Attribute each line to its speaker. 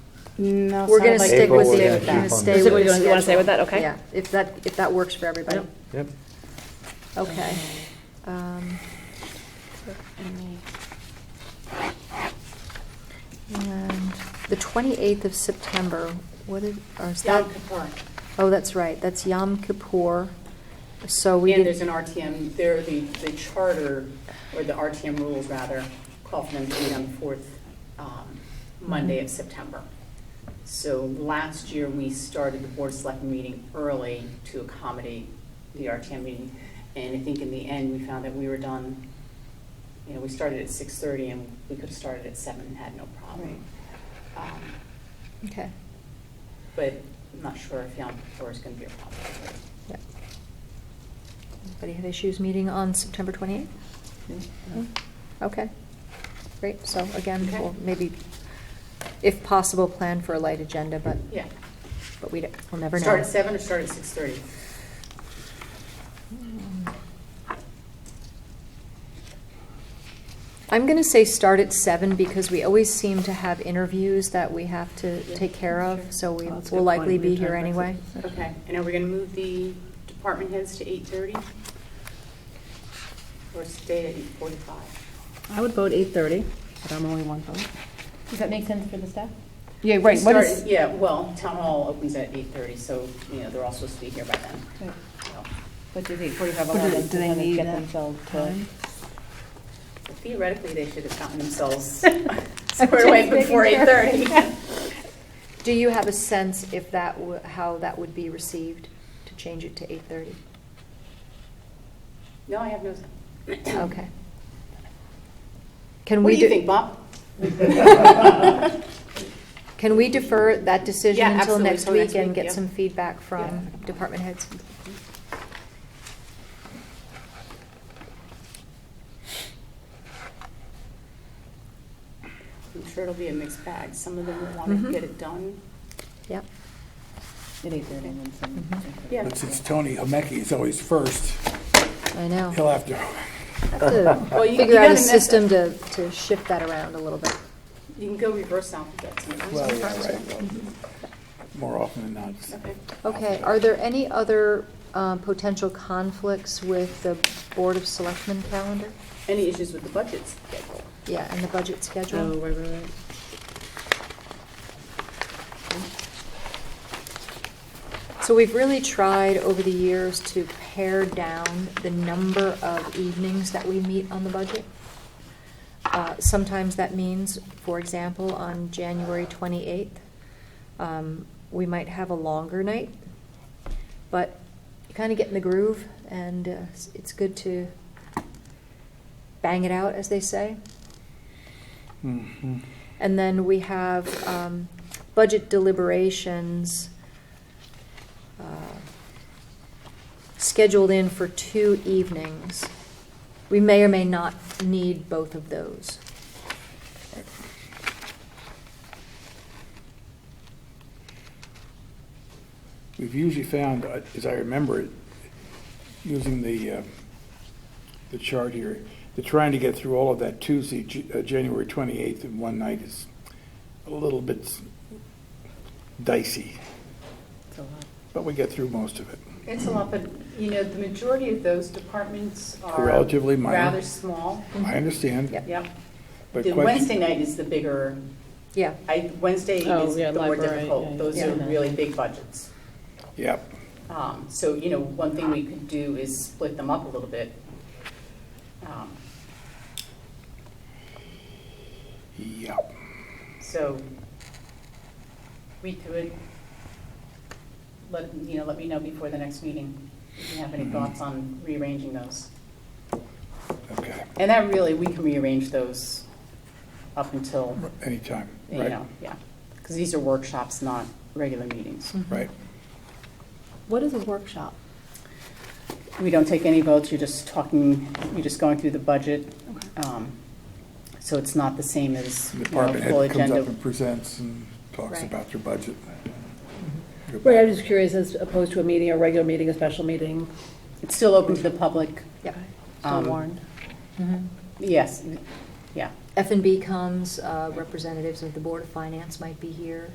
Speaker 1: No,
Speaker 2: We're gonna
Speaker 1: sounds like
Speaker 2: stick
Speaker 1: we'll
Speaker 2: with
Speaker 1: stay
Speaker 2: the,
Speaker 1: with
Speaker 2: gonna
Speaker 1: that.
Speaker 2: stay
Speaker 3: So
Speaker 2: with
Speaker 3: you
Speaker 2: the
Speaker 3: wanna- you wanna stay with that?
Speaker 2: schedule.
Speaker 3: Okay.
Speaker 2: Yeah, if that, if that works for everybody,
Speaker 4: Yep.
Speaker 2: okay.
Speaker 3: Um, so, any-
Speaker 2: And the twenty-eighth of September, what is, or is that?
Speaker 1: Yom Kippur.
Speaker 2: Oh, that's right, that's Yom Kippur, so we
Speaker 1: And there's an
Speaker 2: didn't,
Speaker 1: RTM, there, the, the charter, or the RTM rules rather, call for them to meet on the fourth um, Monday of September. So last year, we started the board select meeting early to accommodate the RTM meeting. And I think in the end, we found that we were done, you know, we started at six-thirty and we could have started at seven and had no problem. Um,
Speaker 2: okay,
Speaker 1: But I'm not sure if Yom Kippur is going to be a problem.
Speaker 2: yeah. Anybody have issues meeting on September twenty-eighth? Hmm. Mm-hmm. Okay, great, so again,
Speaker 1: Okay.
Speaker 2: we'll maybe, if possible, plan for a light agenda, but,
Speaker 1: Yeah.
Speaker 2: but we, don't- we'll never know.
Speaker 1: Start at seven or start at six-thirty?
Speaker 2: I'm going to say start at seven because we always seem to have interviews that we have to take care of, so we
Speaker 3: Oh, that's a
Speaker 2: will
Speaker 3: good
Speaker 2: likely
Speaker 3: point. We
Speaker 2: be
Speaker 3: have to
Speaker 2: here
Speaker 3: have
Speaker 2: anyway.
Speaker 3: breakfast.
Speaker 1: Okay, and are we gonna move the department heads to eight thirty? Or stay at eight forty-five?
Speaker 3: I would vote eight thirty, but I'm only one vote.
Speaker 5: Does that make sense for the staff?
Speaker 3: Yeah, right, what is,
Speaker 1: Yeah, well, town hall opens at eight thirty, so, you know, they're all supposed to be here by then.
Speaker 5: Right.
Speaker 1: So
Speaker 5: But do they, forty-five
Speaker 3: But do-
Speaker 5: eleven,
Speaker 3: do they
Speaker 5: kind of
Speaker 3: need
Speaker 5: get
Speaker 3: that
Speaker 5: themselves to?
Speaker 3: time?
Speaker 1: Theoretically, they should have gotten themselves squared away before eight thirty.
Speaker 2: Do you have a sense if that, w- how that would be received, to change it to eight-thirty?
Speaker 1: No, I have no,
Speaker 2: Okay. Can
Speaker 1: what
Speaker 2: we,
Speaker 1: do you
Speaker 2: de-
Speaker 1: think, Bob?
Speaker 2: can we defer that decision
Speaker 1: Yeah,
Speaker 2: until
Speaker 1: absolutely,
Speaker 2: next
Speaker 1: till next
Speaker 2: week and
Speaker 1: week,
Speaker 2: get
Speaker 1: yeah.
Speaker 2: some feedback from department heads?
Speaker 1: I'm sure it'll be a mixed bag. Some of them will wanna
Speaker 3: Mm-hmm.
Speaker 2: Mhm.
Speaker 1: get it done.
Speaker 2: Yep.
Speaker 5: At eight thirty and then
Speaker 3: Mm-hmm.
Speaker 5: some.
Speaker 1: Yeah.
Speaker 6: But since Tony Homeki is always first,
Speaker 2: I know.
Speaker 6: he'll have to,
Speaker 1: Well, you- you
Speaker 2: Figure out
Speaker 1: gotta
Speaker 2: a
Speaker 1: mess up-
Speaker 2: system to, to shift that around a little bit.
Speaker 1: You can go reverse alphabet sometimes.
Speaker 6: well, yeah, right, well, more often than not.
Speaker 1: Okay.
Speaker 2: Okay, are there any other um, potential conflicts with the Board of Selectmen calendar?
Speaker 1: Any issues with the budget schedule?
Speaker 2: Yeah, and the budget
Speaker 3: Oh,
Speaker 2: schedule?
Speaker 3: right, right, right.
Speaker 2: So we've really tried over the years to pare down the number of evenings that we meet on the budget. Uh, Sometimes that means, for example, on January 28th, um, we might have a longer night, but you kind of get in the groove, and uh, it's- it's good to bang it out, as they say.
Speaker 6: Mhm.
Speaker 2: And then we have um, budget deliberations uh, scheduled in for two evenings. We may or may not need both of those.
Speaker 6: We've usually found, uh, as I remember it, using the, uh, the chart here, that trying to get through all of that Tuesday, J- uh, January 28th in one night is a little bit dicey,
Speaker 5: It's a lot.
Speaker 6: but we get through most of it.
Speaker 1: It's a lot, but, you know, the majority of those departments are.
Speaker 6: Relatively minor.
Speaker 1: Rather small,
Speaker 6: I understand.
Speaker 2: Yep.
Speaker 1: yep.
Speaker 6: but
Speaker 1: The
Speaker 6: quite-
Speaker 1: Wednesday night is the bigger,
Speaker 2: Yeah,
Speaker 1: I, Wednesday
Speaker 3: Oh,
Speaker 1: is
Speaker 3: yeah,
Speaker 1: the more
Speaker 3: library,
Speaker 1: difficult.
Speaker 3: yeah,
Speaker 1: Those
Speaker 2: yeah.
Speaker 1: are really big budgets.
Speaker 6: Yep.
Speaker 1: Um, So, you know, one thing we could do is split them up a little bit. Um,
Speaker 6: Yep.
Speaker 1: So we could, let, you know, let me know before the next meeting if you have any
Speaker 6: Mhm.
Speaker 1: thoughts on rearranging those.
Speaker 6: Okay.
Speaker 1: And that really, we can rearrange those up until,
Speaker 6: Anytime.
Speaker 1: you
Speaker 6: Right.
Speaker 1: know, yeah. Because these are workshops, not regular meetings.
Speaker 6: Right.
Speaker 5: What is a workshop?
Speaker 1: We don't take any votes, you're just talking, you're just going through the budget. Um, So it's not the same as,
Speaker 6: The
Speaker 1: you know,
Speaker 6: Department
Speaker 1: full
Speaker 6: head comes
Speaker 1: agenda.
Speaker 6: up and presents and talks
Speaker 2: Right.
Speaker 6: about their budget.
Speaker 1: Mm-hmm.
Speaker 6: Go
Speaker 3: Right,
Speaker 6: back.
Speaker 3: I'm just curious, as opposed to a meeting, a regular meeting, a special meeting,
Speaker 1: It's still open to the public.
Speaker 2: yeah.
Speaker 3: so
Speaker 1: Um,
Speaker 3: warned.
Speaker 1: Yes, yeah.
Speaker 2: F and B comes, uh, representatives of the Board of Finance might be here.